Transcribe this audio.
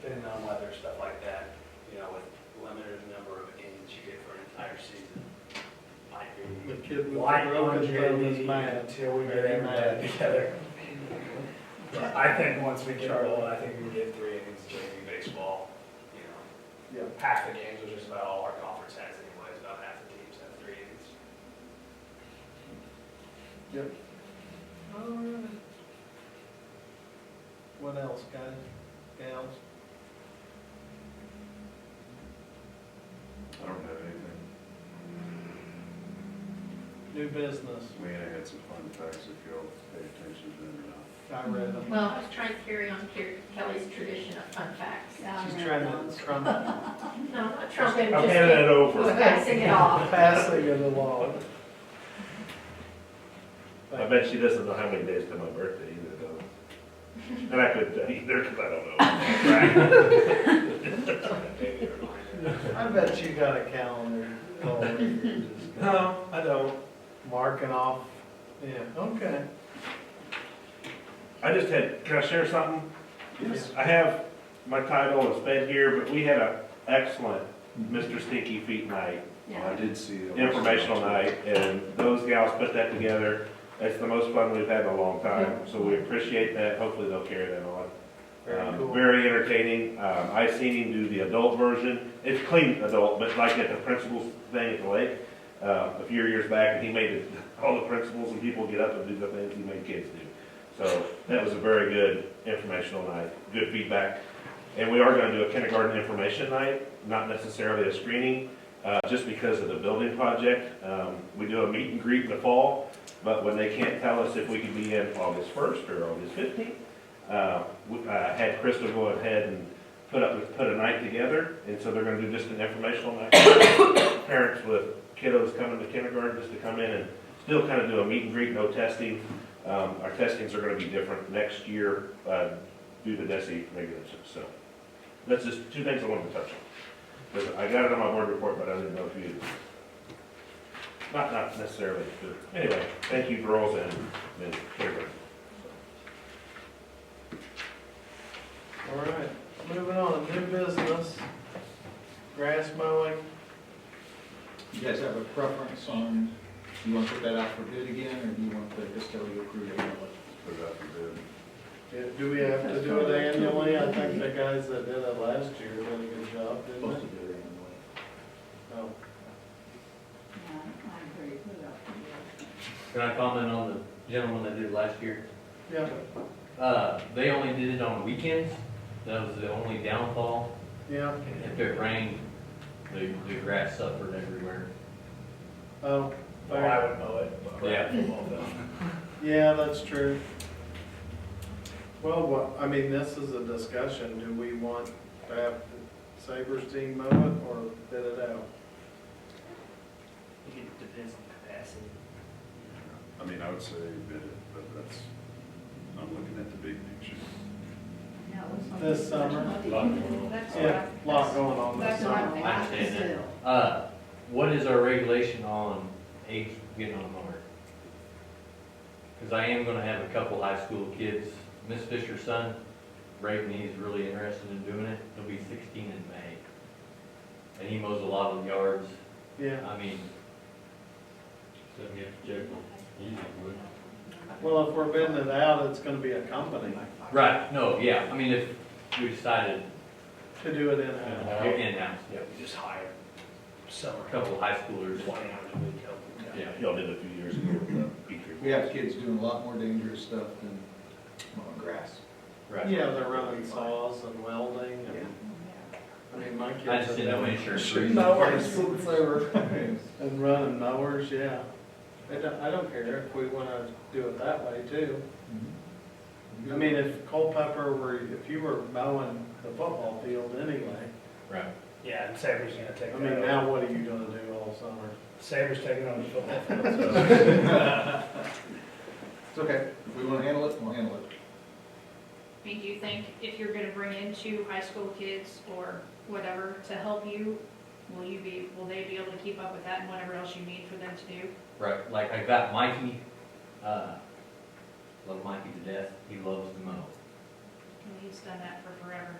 depending on weather, stuff like that, you know, with limited number of games you get for an entire season, might be. The kid with the light broken thumb is longevity mad. Until we get Very everybody mad. together. But I think once we get rolling, I think we can get three innings of JV baseball, you know, Yeah. half the games, which is about all our conference has anyways, about half the teams have three innings. Yep. What else, guys, gals? I don't have anything. New business, We had some fun facts if y'all pay attention to them or not. I read them. Well, I was trying to carry on Ke- Kelly's tradition of fun facts. She's trying to trump, No, I'm not trumping, I'm handing just it over. passing it off. passing it along. I bet she doesn't know how many days to my birthday either, though. And I couldn't tell either, because I don't know. Maybe a reminder. I bet you got a calendar. going, you're just No, I don't. Marking off, yeah, okay. I just had, can I share something? Yes. I have, my title is fed here, but we had a excellent Mr. Stinky Feet night, I Yeah. did see. that. informational night, and those gals put that together. It's the most fun we've had in a long time, so we appreciate that. Hopefully they'll carry that on. Very Um, cool. Very entertaining. Um, I seen him do the adult version. It's clean adult, but like at the principals thing at the lake, uh, a few years back, and he made it, all the principals and people get up and do the things he made kids do. So that was a very good informational night, good feedback. And we are gonna do a kindergarten information night, not necessarily a screening, uh, just because of the building project. Um, we do a meet and greet in the fall, but when they can't tell us if we can be in August first or August fifteenth, uh, we- uh, had Crystal go ahead and put up, put a night together, and so they're gonna do just an informational night. Parents with kiddos coming to kindergarten, just to come in and still kind of do a meet and greet, no testing. Um, our testings are gonna be different next year, uh, due to DESI regulations, so. That's just two things I wanted to touch on. Because I got it on my board report, but I didn't know if you, not, not necessarily, but anyway, thank you girls and, and kindergarten. All right, moving on, new business, grass mowing. You guys have a preference on, do you want to put that out for bid again, or do you want the custodial crew to handle it? Put it out for bid. Yeah, Do we have to do it annually? I think the guys that did it last year did a good job, didn't Supposed they? to do it anyway. Oh, Can I comment on the gentleman that did it last year? Yeah, Uh, they only did it on weekends, that was the only downfall. yeah, If it rained, the, the grass suffered everywhere. oh, Well, I fair. would know it. but- Yeah. Well, though. yeah, that's true. Well, what, I mean, this is a discussion, do we want to have Sabres team mow it or bid it out? I think It depends on capacity. I mean, I would say bid it, but that's, I'm looking at the big picture. This summer? Yeah, lot going on this That's what I'm summer. thinking. I understand that. Uh, what is our regulation on age getting on a mower? Cause I am gonna have a couple high school kids, Miss Fisher's son, Braden, he's really interested in doing it, he'll be sixteen in May. And he mows a lot of yards, Yeah, I mean, well, if we're bidding it out, it's gonna be a company Right, no, yeah, I mean, if we decided to do it in-house. Yeah. in-house, yeah, Yeah, we just hire a summer help, couple of high schoolers, twenty hours a week help. we yeah. got. Y'all did a few years ago with the Petrie. We have kids doing a lot more dangerous stuff than mowing grass. Right. Yeah, they're running saws and welding and, I mean, my kids. I just have didn't know been- insurance. Mowers. Since they were- And running mowers, yeah. I don't, I don't care if we wanna do it that way too. I mean, if Culpepper were, if you were mowing the football field anyway, Right. Yeah, and Sabre's gonna I take mean, that, now what are you gonna do all summer? Sabre's taking on the football field, so. It's okay, if we want to handle it, we'll handle it. I mean, do you think if you're gonna bring in two high school kids or whatever to help you, will you be, will they be able to keep up with that and whatever else you need for them to do? Right, like I got Mikey, uh, love Mikey to death, he loves to mow. And he's done that for forever.